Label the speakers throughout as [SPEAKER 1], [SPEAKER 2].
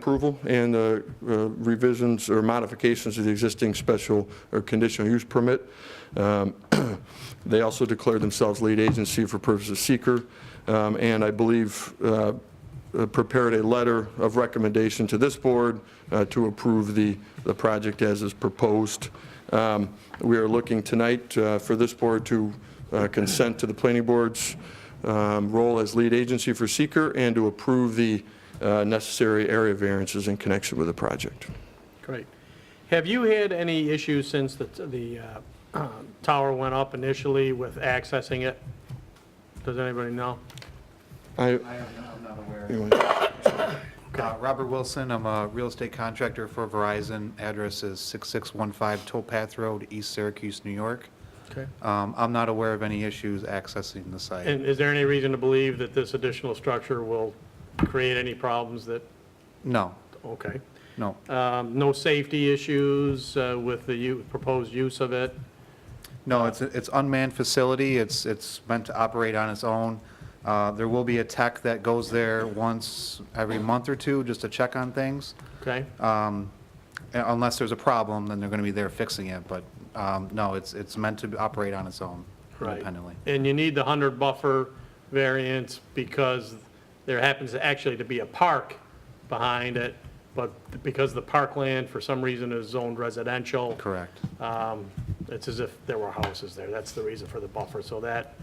[SPEAKER 1] Approval and uh, uh, revisions or modifications to the existing special or conditional use permit. Um, They also declared themselves lead agency for purposes of seeker, um, and I believe uh, uh, prepared a letter of recommendation to this board uh, to approve the, the project as is proposed. Um, We are looking tonight uh, for this board to uh, consent to the planning board's um, role as lead agency for seeker and to approve the uh, necessary area variances in connection with the project.
[SPEAKER 2] Great. Have you had any issues since the, the uh, um, tower went up initially with accessing it? Does anybody know?
[SPEAKER 1] I,
[SPEAKER 3] I am I'm not aware.
[SPEAKER 1] anyway,
[SPEAKER 3] Uh, Robert Wilson, I'm a real estate contractor for Verizon. Address is 6615 Towpath Road, East Syracuse, New York.
[SPEAKER 2] Okay.
[SPEAKER 3] Um, I'm not aware of any issues accessing the site.
[SPEAKER 2] And is there any reason to believe that this additional structure will create any problems that,
[SPEAKER 3] No,
[SPEAKER 2] okay.
[SPEAKER 3] no,
[SPEAKER 2] Um, No safety issues uh, with the u- proposed use of it?
[SPEAKER 3] no, it's, it's unmanned facility, it's, it's meant to operate on its own. Uh, There will be a tech that goes there once every month or two, just to check on things.
[SPEAKER 2] Okay?
[SPEAKER 3] Um, a- Unless there's a problem, then they're going to be there fixing it, but um, no, it's, it's meant to operate on its own
[SPEAKER 2] Right.
[SPEAKER 3] independently.
[SPEAKER 2] And you need the 100 buffer variance because there happens to actually to be a park behind it, but because the parkland for some reason is zoned residential.
[SPEAKER 3] Correct.
[SPEAKER 2] um, It's as if there were houses there. That's the reason for the buffer. So that,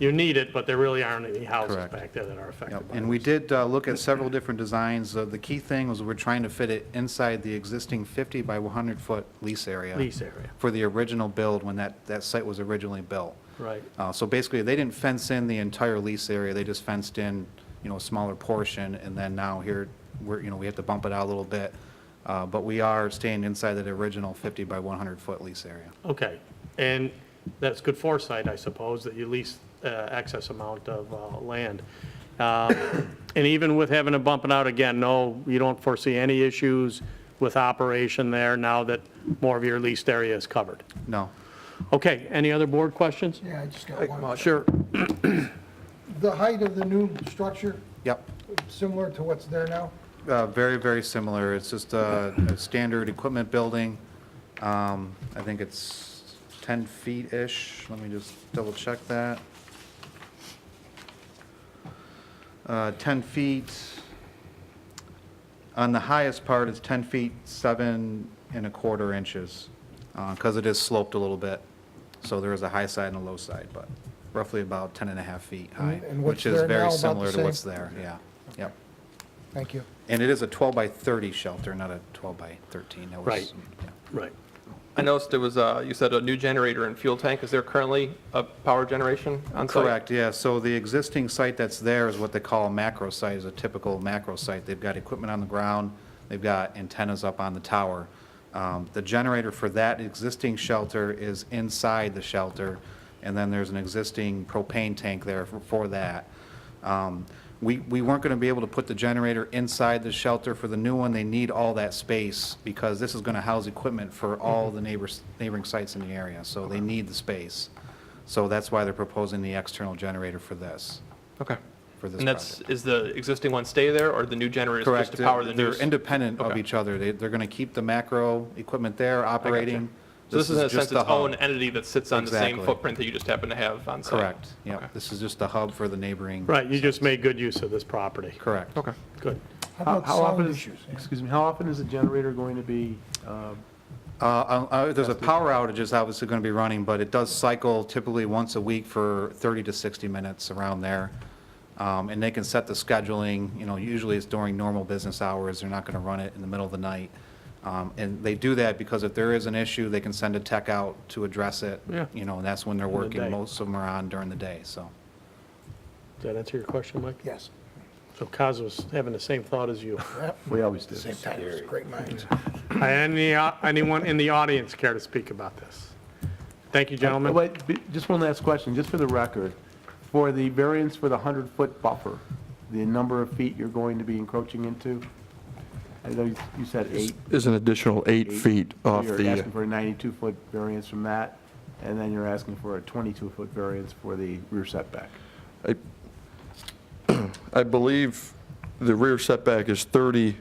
[SPEAKER 2] you need it, but there really aren't any houses
[SPEAKER 3] Correct.
[SPEAKER 2] back there that are affected
[SPEAKER 3] Yep,
[SPEAKER 2] by it.
[SPEAKER 3] and we did uh, look at several different designs. Uh, The key thing was we're trying to fit it inside the existing 50 by 100-foot lease area
[SPEAKER 2] Lease area,
[SPEAKER 3] for the original build when that, that site was originally built.
[SPEAKER 2] right.
[SPEAKER 3] Uh, So basically, they didn't fence in the entire lease area, they just fenced in, you know, a smaller portion, and then now here, we're, you know, we have to bump it out a little bit. Uh, But we are staying inside that original 50 by 100-foot lease area.
[SPEAKER 2] Okay. And that's good foresight, I suppose, that you lease uh, excess amount of uh, land. Um, And even with having to bump it out again, no, you don't foresee any issues with operation there now that more of your leased area is covered.
[SPEAKER 3] No,
[SPEAKER 2] Okay, any other board questions?
[SPEAKER 4] Yeah, I just got one.
[SPEAKER 2] Sure.
[SPEAKER 4] The height of the new structure,
[SPEAKER 3] yep.
[SPEAKER 4] similar to what's there now?
[SPEAKER 3] Uh, Very, very similar. It's just a a standard equipment building. Um, I think it's 10 feet-ish. Let me just double-check that. Uh, 10 feet. On the highest part, it's 10 feet, 7 and a quarter inches, because it is sloped a little bit. So there is a high side and a low side, but roughly about 10 and a half feet high,
[SPEAKER 4] And- and what's
[SPEAKER 3] which is
[SPEAKER 4] there now,
[SPEAKER 3] very
[SPEAKER 4] about the
[SPEAKER 3] similar to
[SPEAKER 4] same?
[SPEAKER 3] what's there. Yeah, yep.
[SPEAKER 4] Thank you.
[SPEAKER 3] And it is a 12 by 30 shelter, not a 12 by 13. That was-
[SPEAKER 2] Right.
[SPEAKER 3] yeah.
[SPEAKER 2] Right.
[SPEAKER 5] I noticed there was, uh, you said a new generator and fuel tank. Is there currently a power generation on site?
[SPEAKER 3] Correct, yeah. So the existing site that's there is what they call a macro site, is a typical macro site. They've got equipment on the ground, they've got antennas up on the tower. Um, The generator for that existing shelter is inside the shelter, and then there's an existing propane tank there for- for that. Um, We, we weren't going to be able to put the generator inside the shelter for the new one. They need all that space because this is going to house equipment for
[SPEAKER 5] Mm-hmm.
[SPEAKER 3] all the neighbors, neighboring sites in the area, so they need the space. So that's why they're proposing the external generator for this,
[SPEAKER 5] Okay.
[SPEAKER 3] for this
[SPEAKER 5] And that's,
[SPEAKER 3] project.
[SPEAKER 5] is the existing one stay there, or the new generator is
[SPEAKER 3] Correct.
[SPEAKER 5] just to power the
[SPEAKER 3] They're-
[SPEAKER 5] new?
[SPEAKER 3] They're independent of
[SPEAKER 5] Okay.
[SPEAKER 3] each other. They, they're going to keep the macro equipment there operating.
[SPEAKER 5] So this is in a
[SPEAKER 3] just
[SPEAKER 5] sense
[SPEAKER 3] the
[SPEAKER 5] its
[SPEAKER 3] hub.
[SPEAKER 5] own entity that sits on the same
[SPEAKER 3] Exactly.
[SPEAKER 5] footprint that you just happen to have on site?
[SPEAKER 3] Correct,
[SPEAKER 5] Okay.
[SPEAKER 3] yeah. This is just the hub for the neighboring.
[SPEAKER 2] Right, you just made good use of this property.
[SPEAKER 3] Correct.
[SPEAKER 5] Okay.
[SPEAKER 2] Good.
[SPEAKER 4] How
[SPEAKER 6] How
[SPEAKER 4] about
[SPEAKER 6] how often
[SPEAKER 4] sound
[SPEAKER 6] is,
[SPEAKER 4] issues?
[SPEAKER 6] excuse me, how often is the generator going to be, uh,
[SPEAKER 3] Uh, uh, uh, There's a power outage is obviously going to be running, but it does cycle typically once a week for 30 to 60 minutes around there. Um, And they can set the scheduling, you know, usually it's during normal business hours. They're not going to run it in the middle of the night. Um, And they do that because if there is an issue, they can send a tech out to address it.
[SPEAKER 2] Yeah.
[SPEAKER 3] You know, and that's when they're
[SPEAKER 2] the day.
[SPEAKER 3] working. Most of them are on during the day, so.
[SPEAKER 2] Does that answer your question, Mike?
[SPEAKER 4] Yes,
[SPEAKER 2] So Kaz was having the same thought as you.
[SPEAKER 6] we always do.
[SPEAKER 4] same time, it's great minds.
[SPEAKER 2] Any, uh, anyone in the audience care to speak about this? Thank you,
[SPEAKER 6] Uh,
[SPEAKER 2] gentlemen.
[SPEAKER 6] Wait, be- just one last question, just for the record. For the variance for the 100-foot buffer, the number of feet you're going to be encroaching into? I know you you said eight.
[SPEAKER 1] is an additional eight feet off
[SPEAKER 6] You're
[SPEAKER 1] the, uh,
[SPEAKER 6] asking for a 92-foot variance from that, and then you're asking for a 22-foot variance for the rear setback.
[SPEAKER 1] I believe the rear setback is 30